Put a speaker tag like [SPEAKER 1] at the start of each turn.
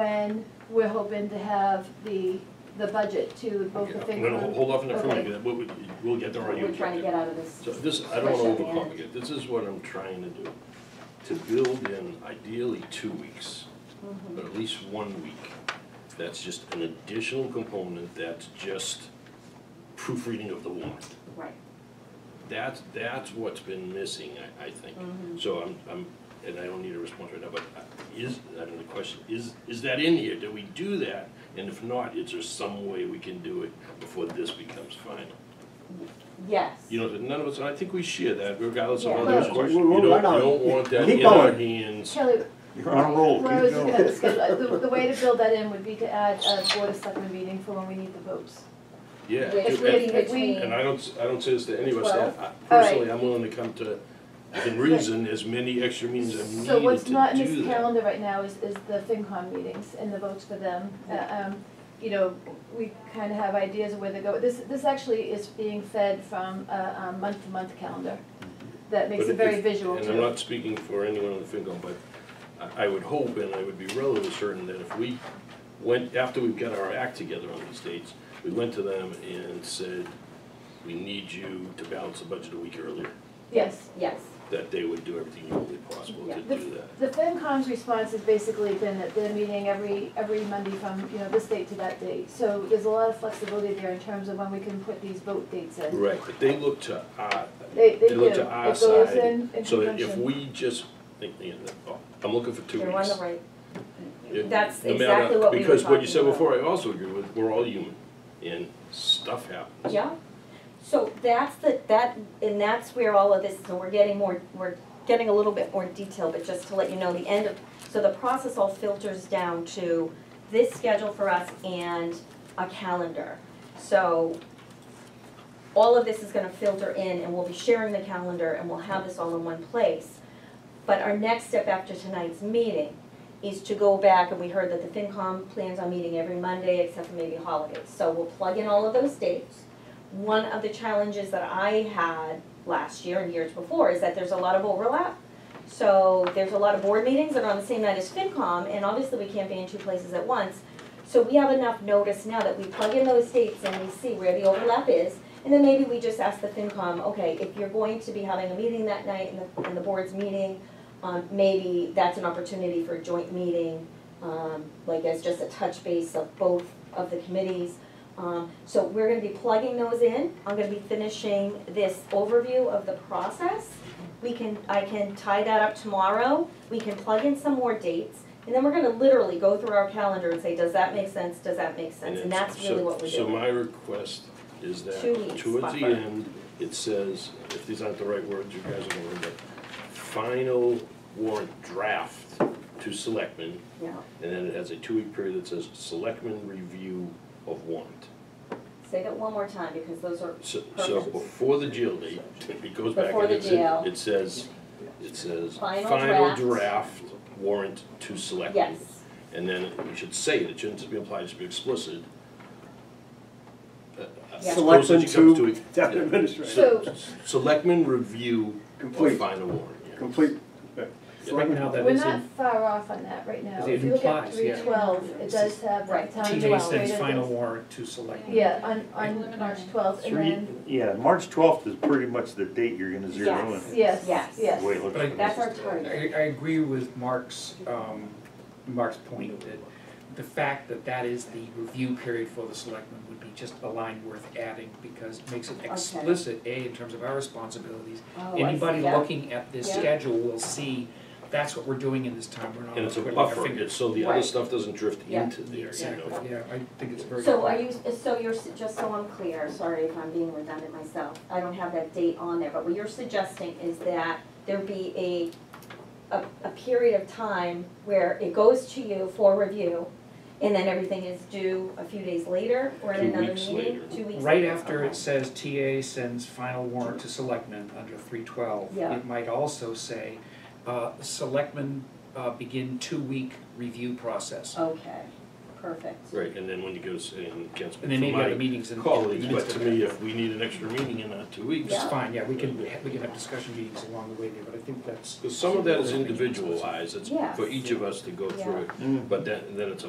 [SPEAKER 1] when we're hoping to have the, the budget to both the
[SPEAKER 2] I'm gonna ho-
[SPEAKER 1] FinCom.
[SPEAKER 2] hold off on the
[SPEAKER 1] Okay.
[SPEAKER 2] fruit, again. we'll, we'll get there
[SPEAKER 1] what
[SPEAKER 2] on you.
[SPEAKER 1] We're trying to get out of this.
[SPEAKER 2] So this, I don't wanna
[SPEAKER 1] Fresh out the end.
[SPEAKER 2] overcomplicate, it. this is what I'm trying to do, to build in ideally two weeks, but at least one week. That's just an additional component, that's just proofreading of the warrant.
[SPEAKER 1] Right.
[SPEAKER 2] That's, that's what's been missing, I, I think.
[SPEAKER 1] Mm-hmm.
[SPEAKER 2] So I'm, I'm, and I don't need a response right now, but uh, is, I don't know, the question, is, is that in here? Do we do that? And if not, is there some way we can do it before this becomes final?
[SPEAKER 1] Yes.
[SPEAKER 2] You know, none of us, and I think we share that regardless of
[SPEAKER 1] Yeah.
[SPEAKER 2] others'
[SPEAKER 1] Well,
[SPEAKER 2] questions.
[SPEAKER 3] we're-
[SPEAKER 2] You
[SPEAKER 3] we're
[SPEAKER 2] don't, you
[SPEAKER 3] right on.
[SPEAKER 2] don't want that
[SPEAKER 3] Keep
[SPEAKER 2] in our
[SPEAKER 3] going.
[SPEAKER 2] hands.
[SPEAKER 1] Kelly,
[SPEAKER 3] You're on a
[SPEAKER 2] Oh,
[SPEAKER 3] roll,
[SPEAKER 1] Rose,
[SPEAKER 3] keep
[SPEAKER 1] you
[SPEAKER 3] going.
[SPEAKER 1] got this good. Uh, the, the way to build that in would be to add a board of selectmen meeting for when we need the votes.
[SPEAKER 2] Yeah.
[SPEAKER 1] If we,
[SPEAKER 2] And-
[SPEAKER 1] if we,
[SPEAKER 2] And I don't, s- I don't say this to any of us,
[SPEAKER 1] Twelve?
[SPEAKER 2] I-
[SPEAKER 1] All right.
[SPEAKER 2] personally, I'm willing to come to, within reason, as many extra meetings as needed to do that.
[SPEAKER 1] So what's not in this calendar right now is, is the FinCon meetings and the votes for them. Uh, um, You know, we kind of have ideas of where they go. This, this actually is being fed from a a month-to-month calendar that makes
[SPEAKER 2] Mm-hmm. But
[SPEAKER 1] it very
[SPEAKER 2] if-
[SPEAKER 1] visual
[SPEAKER 2] And I'm
[SPEAKER 1] too.
[SPEAKER 2] not speaking for anyone on the FinCom, but I, I would hope and I would be relatively certain that if we went, after we've got our act together on these dates, we went to them and said, we need you to balance the budget a week earlier,
[SPEAKER 1] Yes.
[SPEAKER 4] Yes,
[SPEAKER 2] that they would do everything humanly possible to
[SPEAKER 4] Yeah.
[SPEAKER 2] do that.
[SPEAKER 1] The FinCom's response has basically been that they're meeting every, every Monday from, you know, this date to that date. So there's a lot of flexibility there in terms of when we can put these vote dates in.
[SPEAKER 2] Right, but they look to our,
[SPEAKER 1] They, they
[SPEAKER 2] they
[SPEAKER 1] do.
[SPEAKER 2] look to our
[SPEAKER 1] It goes
[SPEAKER 2] side,
[SPEAKER 1] in, in
[SPEAKER 2] so that if
[SPEAKER 1] conjunction.
[SPEAKER 2] we just, think, you know, oh, I'm looking for two weeks.
[SPEAKER 4] you're on the right.
[SPEAKER 2] Yeah,
[SPEAKER 4] That's
[SPEAKER 2] no matter-
[SPEAKER 4] exactly what we were
[SPEAKER 2] Because what you
[SPEAKER 4] talking
[SPEAKER 2] said
[SPEAKER 4] about.
[SPEAKER 2] before, I also agree with, we're all human, and stuff happens.
[SPEAKER 4] Yeah, so that's the, that, and that's where all of this, so we're getting more, we're getting a little bit more detail, but just to let you know, the end of, so the process all filters down to this schedule for us and a calendar. So all of this is gonna filter in and we'll be sharing the calendar and we'll have this all in one place. But our next step after tonight's meeting is to go back, and we heard that the FinCom plans on meeting every Monday except for maybe holidays. So we'll plug in all of those dates. One of the challenges that I had last year and years before is that there's a lot of overlap. So there's a lot of board meetings that are on the same night as FinCom, and obviously we can't be in two places at once. So we have enough notice now that we plug in those dates and we see where the overlap is. And then maybe we just ask the FinCom, okay, if you're going to be having a meeting that night and the, and the board's meeting, um, maybe that's an opportunity for a joint meeting, um, like as just a touch base of both of the committees. Um, so we're gonna be plugging those in, I'm gonna be finishing this overview of the process. We can, I can tie that up tomorrow, we can plug in some more dates, and then we're gonna literally go through our calendar and say, does that make sense, does that make sense?
[SPEAKER 2] it's-
[SPEAKER 4] And that's really
[SPEAKER 2] so-
[SPEAKER 4] what we're
[SPEAKER 2] So
[SPEAKER 4] doing.
[SPEAKER 2] my request is that
[SPEAKER 4] Two weeks
[SPEAKER 2] towards the
[SPEAKER 4] buffer.
[SPEAKER 2] end, it says, if these aren't the right words, you guys are gonna remember. Final warrant draft to selectmen,
[SPEAKER 4] Yeah,
[SPEAKER 2] and then it has a two-week period that says selectmen review of warrant.
[SPEAKER 4] say that one more time, because those are,
[SPEAKER 2] So, so
[SPEAKER 4] Perfect.
[SPEAKER 2] before the jail date, it goes back
[SPEAKER 4] Before
[SPEAKER 2] and
[SPEAKER 4] the
[SPEAKER 2] it's,
[SPEAKER 4] jail.
[SPEAKER 2] it says, it says,
[SPEAKER 4] Final
[SPEAKER 2] final
[SPEAKER 4] draft.
[SPEAKER 2] draft warrant to selectmen.
[SPEAKER 4] yes,
[SPEAKER 2] And then we should say it, it shouldn't just be implied, it should be explicit. Uh, I
[SPEAKER 4] Yeah.
[SPEAKER 2] suppose that you come
[SPEAKER 3] Selectmen
[SPEAKER 2] it-
[SPEAKER 3] to town
[SPEAKER 2] yeah.
[SPEAKER 3] administrator.
[SPEAKER 2] So, s- Selectmen review or
[SPEAKER 3] Complete,
[SPEAKER 2] final warrant, yeah.
[SPEAKER 3] complete.
[SPEAKER 5] So right now that
[SPEAKER 1] We're
[SPEAKER 5] is
[SPEAKER 1] not
[SPEAKER 5] in,
[SPEAKER 1] far off on that right now.
[SPEAKER 5] It
[SPEAKER 1] If you look at
[SPEAKER 5] implies, yeah.
[SPEAKER 1] three twelve, it does have the
[SPEAKER 4] Right.
[SPEAKER 1] town
[SPEAKER 5] TJ says
[SPEAKER 1] administrator.
[SPEAKER 5] final warrant to select.
[SPEAKER 1] Yeah, on, on March twelfth, and
[SPEAKER 6] Three,
[SPEAKER 1] then,
[SPEAKER 6] yeah, March twelfth is pretty much the date you're gonna zero in.
[SPEAKER 1] yes,
[SPEAKER 4] Yes.
[SPEAKER 1] yes.
[SPEAKER 4] Yes.
[SPEAKER 6] The way it looks.
[SPEAKER 5] But I-
[SPEAKER 4] that's our
[SPEAKER 5] I,
[SPEAKER 4] target.
[SPEAKER 5] I agree with Mark's, um, Mark's point that the fact that that is the review period for the selectmen would be just a line worth adding because it makes it explicit, A, in terms of our responsibilities.
[SPEAKER 4] Oh, I see,
[SPEAKER 5] Anybody
[SPEAKER 4] yeah.
[SPEAKER 5] looking at this
[SPEAKER 4] Yeah.
[SPEAKER 5] schedule will see, that's what we're doing in this time, we're not
[SPEAKER 2] And it's a
[SPEAKER 5] twiddling our
[SPEAKER 2] buffer,
[SPEAKER 5] fingers.
[SPEAKER 2] it's so the other
[SPEAKER 4] Right.
[SPEAKER 2] stuff doesn't drift
[SPEAKER 4] Yeah.
[SPEAKER 2] into there, you know.
[SPEAKER 5] Exactly, yeah, I think it's very.
[SPEAKER 4] So are you, so you're, su- just so I'm clear, sorry if I'm being redundant myself, I don't have that date on there, but what you're suggesting is that there be a, a, a period of time where it goes to you for review, and then everything is due a few days later, or at
[SPEAKER 2] Two
[SPEAKER 4] another
[SPEAKER 2] weeks
[SPEAKER 4] meeting,
[SPEAKER 2] later.
[SPEAKER 4] two weeks
[SPEAKER 5] Right
[SPEAKER 4] later,
[SPEAKER 5] after
[SPEAKER 4] okay.
[SPEAKER 5] it says TA sends final warrant to selectmen under three twelve,
[SPEAKER 4] Yeah.
[SPEAKER 5] it might also say, uh, selectmen, uh, begin two-week review process.
[SPEAKER 4] Okay, perfect.
[SPEAKER 2] Right, and then when you go to, say, and cancel,
[SPEAKER 5] And then maybe other
[SPEAKER 2] for my
[SPEAKER 5] meetings in. in the
[SPEAKER 2] colleagues, but
[SPEAKER 5] midst
[SPEAKER 2] to
[SPEAKER 5] of
[SPEAKER 2] me, uh,
[SPEAKER 5] that.
[SPEAKER 2] if we need an extra meeting in that two weeks,
[SPEAKER 5] It's
[SPEAKER 4] Yeah.
[SPEAKER 5] fine, yeah, we can, we can have discussion meetings along the way there, but I think that's.
[SPEAKER 2] because some of that is individualized, it's for
[SPEAKER 4] Yes.
[SPEAKER 2] each of us to go through it.
[SPEAKER 6] Mm.
[SPEAKER 2] But then, then it's a